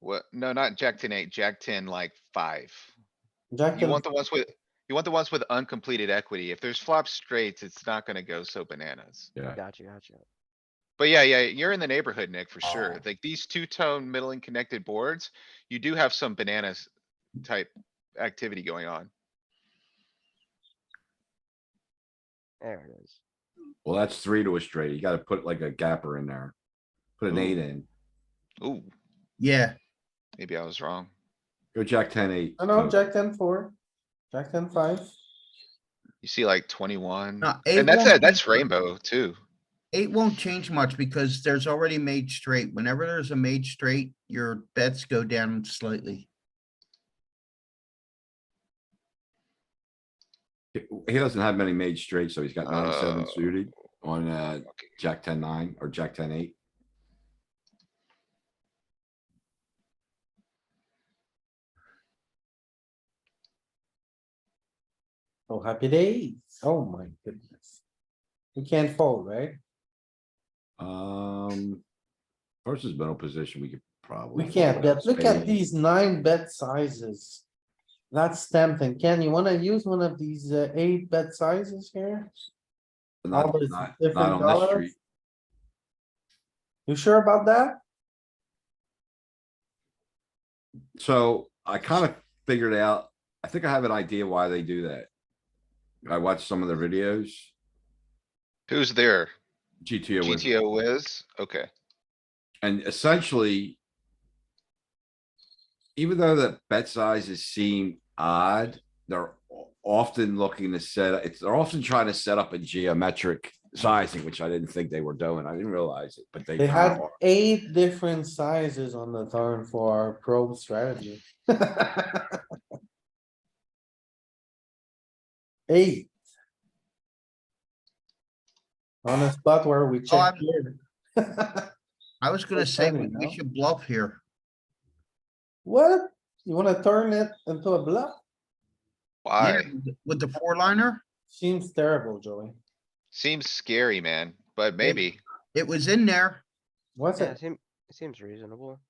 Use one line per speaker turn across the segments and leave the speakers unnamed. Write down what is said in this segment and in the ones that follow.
What? No, not jack ten eight, jack ten like five.
Jack
You
ten,
want the ones with, you want the ones with uncompleted equity. If there's flop straights, it's not gonna go so bananas.
Yeah.
Gotcha, gotcha.
But yeah, yeah, you're in the neighborhood, Nick, for
Oh.
sure. Like these two-tone middling connected boards, you do have some bananas type activity going on.
There it is.
Well, that's three to a straight. You gotta put like a gapper in there. Put an
Ooh.
eight in.
Ooh,
Yeah,
maybe I was wrong.
Go jack ten eight.
no, no, jack ten four, jack ten five.
You see like twenty-one,
No, eight
and that's,
won't
it, that's
be-
rainbow too.
eight won't change much because there's already made straight. Whenever there's a made straight, your bets go down slightly.
He he doesn't have many made straight, so he's got nine seven
Oh.
suited on uh
Okay.
jack ten nine or jack ten eight.
Oh, happy days. Oh my goodness. You can't fold, right?
Um. Versus middle position, we could probably.
We can't bet. Look at
Spade.
these nine bet sizes. That's tempting. Ken, you wanna use one of these uh, eight bet sizes here?
Not,
all those
not,
different
not on this
dollars?
street.
You sure about that?
So I kind of figured out, I think I have an idea why they do that. I watched some of their videos,
Who's there?
GTO was
GTO whiz? Okay.
And essentially. Even though the bet sizes seem odd, they're o- often looking to set, it's, they're often trying to set up a geometric sizing, which I didn't think they were doing. I didn't realize it, but they.
They
kinda
had
are.
eight different sizes on the turn for our probe strategy. Eight. On a spot where we
Oh, I'm-
check here.
I was gonna
That's
say,
funny,
we we
no?
should bluff here.
What? You wanna turn it into a bluff?
Yeah,
Why?
with the- With the four liner,
Seems terrible, Joey.
Seems scary, man, but maybe.
it was in there.
What's
Yeah,
it?
it seems, it seems reasonable.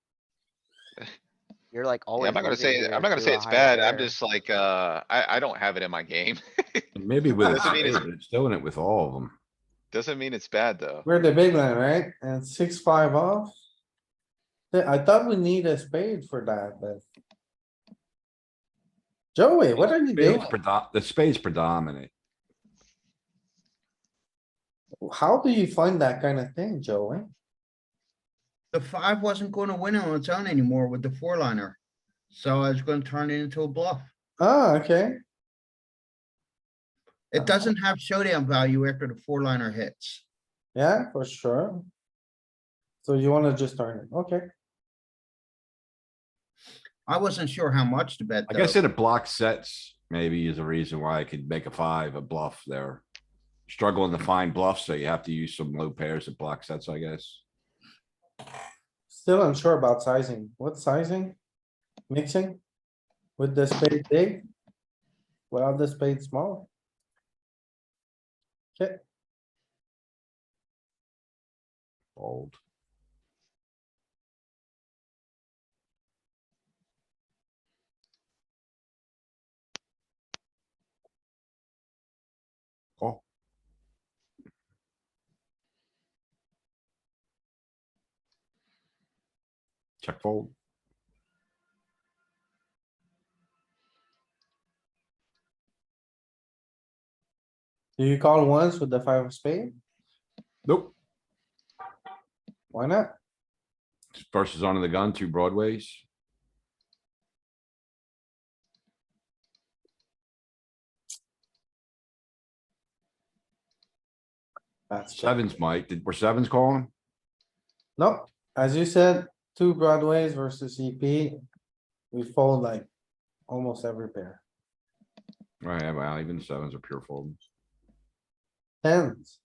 You're like always.
Yeah, I'm not gonna
losing
say,
here
I'm not gonna
to
say
a
it's
higher
bad. I'm
pair.
just like, uh, I, I don't have it in my game.
And Maybe with, a
Doesn't mean
spade,
it's-
but it's doing it with all of them.
Doesn't mean it's bad, though.
We're the big line, right? And six, five off. Yeah, I thought we need a spade for that, but. Joey, what are you doing?
Spade's predo- The spade's predominant.
How do you find that kind of thing, Joey?
The five wasn't gonna win on its own anymore with the four liner. So I was gonna turn it into a bluff.
Ah, okay. Uh-huh.
It doesn't have showdown value after the four liner hits.
Yeah, for sure. So you wanna just turn it, okay?
I wasn't sure how much to bet
I guess
though.
in a block sets, maybe is a reason why I could make a five, a bluff there. Struggling to find bluffs, so you have to use some low pairs of block sets, I guess.
Still unsure about sizing. What sizing? Mixing? With the spade big? Without the spade small? Okay,
Old. Call. Check fold.
do you call once with the five of spade?
Nope.
Why not?
Versus onto the gun, two broadways.
That's check.
Sevens, Mike. Did, were sevens calling?
Nope, as you said, two broadways versus EP. We fold like almost every pair.
Right, yeah, well, even sevens are pure fold.
Tens.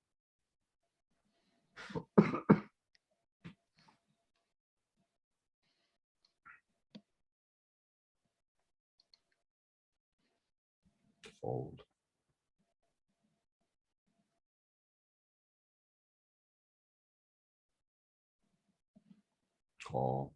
Fold. Call.